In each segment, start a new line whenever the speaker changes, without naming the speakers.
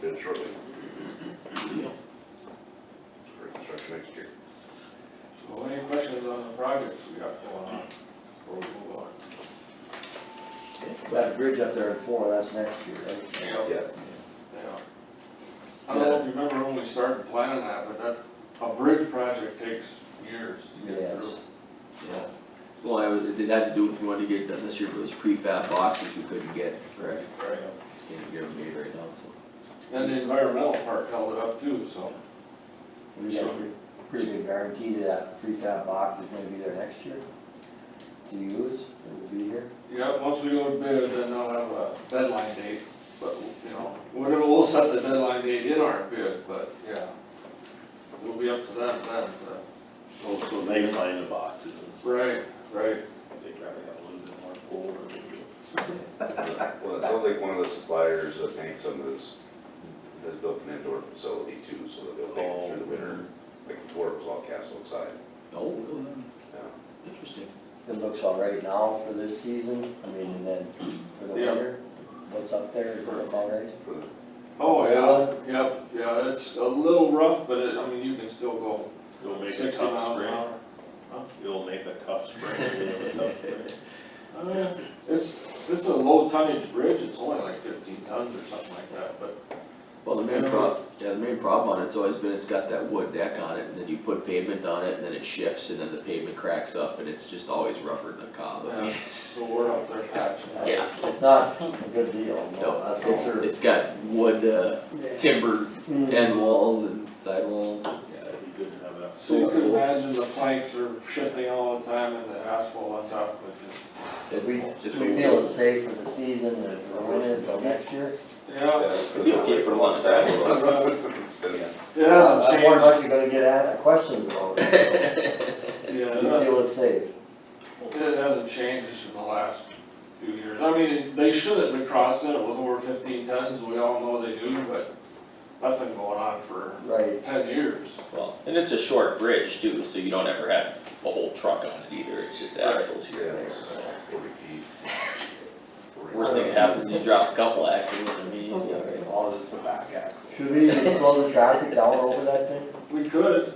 started shortly. For construction next year.
So any questions on the projects we got going on, before we move on?
That bridge up there at four, that's next year, right?
Yeah. Yeah. I don't know if you remember when we started planning that, but that, a bridge project takes years to get
Yes.
through.
Yeah. Well, I was, it did have to do if you wanted to get it done this year, but it was prefab boxes we couldn't get, right?
Right.
Can't get them made right now, so.
And the environmental part held it up too, so.
We got a pretty- pretty good guarantee that that prefab box is gonna be there next year. To use, it will be here.
Yeah, once we go to bid, then I'll have a deadline date, but, you know, whatever, we'll set the deadline date in our bid, but, yeah. It'll be up to them then, but.
So, so they find the boxes, and
Right, right.
they probably have a little bit more pull or maybe.
Well, it sounds like one of the suppliers, I think some of this, has built an indoor facility too, so that they'll make it through the winter. Like the tour was all cast outside.
Oh, really?
Yeah.
Interesting.
It looks all right now for this season, I mean, and then for the
Yeah.
winter, what's up there is about right.
For the-
Oh, yeah, yep, yeah, it's a little rough, but it, I mean, you can still go
It'll make a
sixty miles an
tough
hour.
spring, it'll make a tough spring, it'll be a tough spring.
Uh, It's, it's a low tonnage bridge, it's only like fifteen tons or something like that, but,
Well, the main prob, yeah, the main problem on it's always been it's got that wood deck on it, and then you put pavement on it, and then it shifts, and then the pavement cracks up, and it's just always rougher than a cob. I mean,
so we're up there patching.
Yeah.
It's Not a good deal, no,
No,
that's for
it's,
sure.
it's got wood, uh, timber
Mm.
end walls and side walls, and, yeah,
It'd be good to have enough.
So you can imagine the planks are shifting all the time and the asphalt on top of it just
it's,
We,
it's. it's
we feel it's safe for the season and for winter, until next year.
Yeah,
It'd be okay for a long time.
It's been-
it hasn't
I wonder
changed.
if Uh, you're gonna get asked questions about it,
Yeah,
so
it
you
hasn't-
feel it's safe.
it hasn't changed just in the last few years. I mean, they should have been crossing it with over fifteen tons, we all know they do, but that's been going on for
Right,
ten years.
Well, and it's a short bridge too, so you don't ever have a whole truck on it either, it's just axles here and
Yeah,
there.
it's
so.
forty feet. Forty-
Worst thing that happens is you drop a couple axles and then you,
All just the back end.
should we even slow the traffic down over that thing?
We could,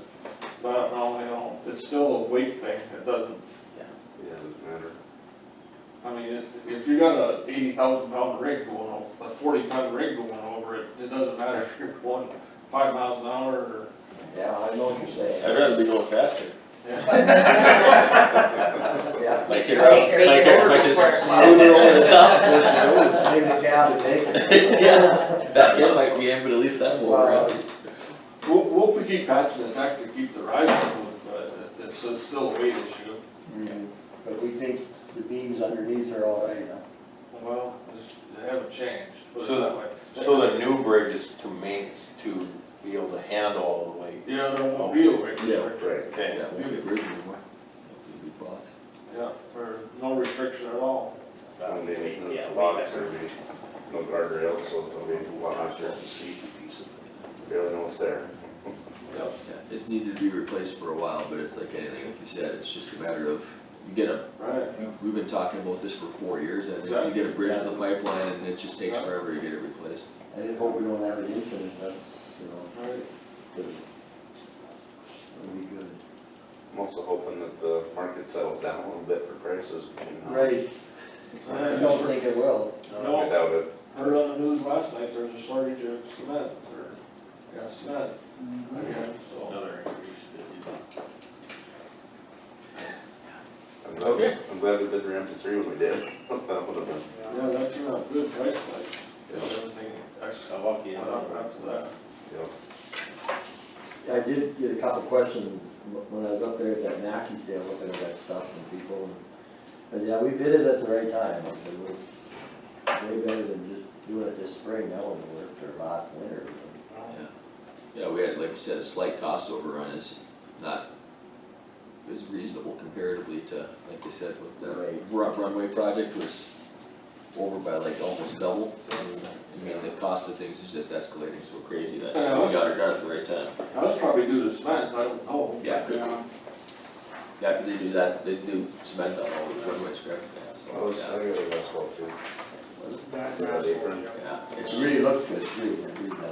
but no, we don't, it's still a weight thing, it doesn't,
Yeah, it doesn't matter.
I mean, if, if you got a eighty thousand pound rig going over, a forty ton rig going over it, it doesn't matter if you're going five miles an hour or,
Yeah, I know what you're saying,
I'd rather be going faster.
yeah.
yeah.
Like you're
Like
out,
you're-
like
you're
you're, like just
over for it.
smoothing over the top.
Maybe the cab would take it.
Yeah, that hill might be in, but at least that will
Well,
around.
We'll, we'll keep patching the deck to keep the ride smooth, but it's, it's still a weight issue.
mm, But we think the beams underneath are all right, huh?
Well, it's- they haven't changed, put it
So-
that way.
So the new bridge is to main, to be able to handle all the weight.
Yeah, there won't be a weight
Yeah.
restriction,
Right.
Okay.
Yeah, we get rid of it anymore. It'll be blocks.
yeah, or no restriction at all.
And they make
Yeah,
the
way
lots
better.
are made, no guardrails, so they'll be a lot of just a seat piece of, barely know it's there.
Yeah, It's needed to be replaced for a while, but it's like anything, like you said, it's just a matter of, you get a,
Right.
we've been talking about this for four years, I think, you get a bridge in the pipeline and it just takes
Yeah.
forever to get it replaced.
I just hope we don't have an incident, that's, you know,
Right.
good. It'll be good.
I'm also hoping that the market settles down a little bit for prices. you know.
Right, I don't think it will.
No.
Without it,
Heard on the news last night, there's a shortage of cement, or, yeah, cement. Again, so.
Another increase that you.
I'm glad, I'm glad we did Ramsey three when we did. That would've been-
Yeah, that turned out good price, like,
Yeah.
everything, actually,
How lucky
went
am I?
up after that.
yeah.
I did get a couple questions wh- when I was up there at that Mackey sale, looking at that stuff and people, and, but yeah, we bid it at the right time, like, it was way better than just doing it this spring, that wouldn't have worked or last winter.
Yeah, we had, like you said, a slight cost overrun is not, is reasonable comparatively to, like you said, with the
Right.
ru- runway project was over by like almost double. I mean, the cost of things is just escalating so crazy that
Yeah, I was-
we got it done at the right time.
That was probably due to cement, I don't know.
Yeah, could be. Yeah, cause they do that, they do cement on all these runways, correct? Yeah,
I was, I
Oh, yeah,
got a basketball too. Red apron.
yeah, it's
It
just-
really looks good too, when you read that.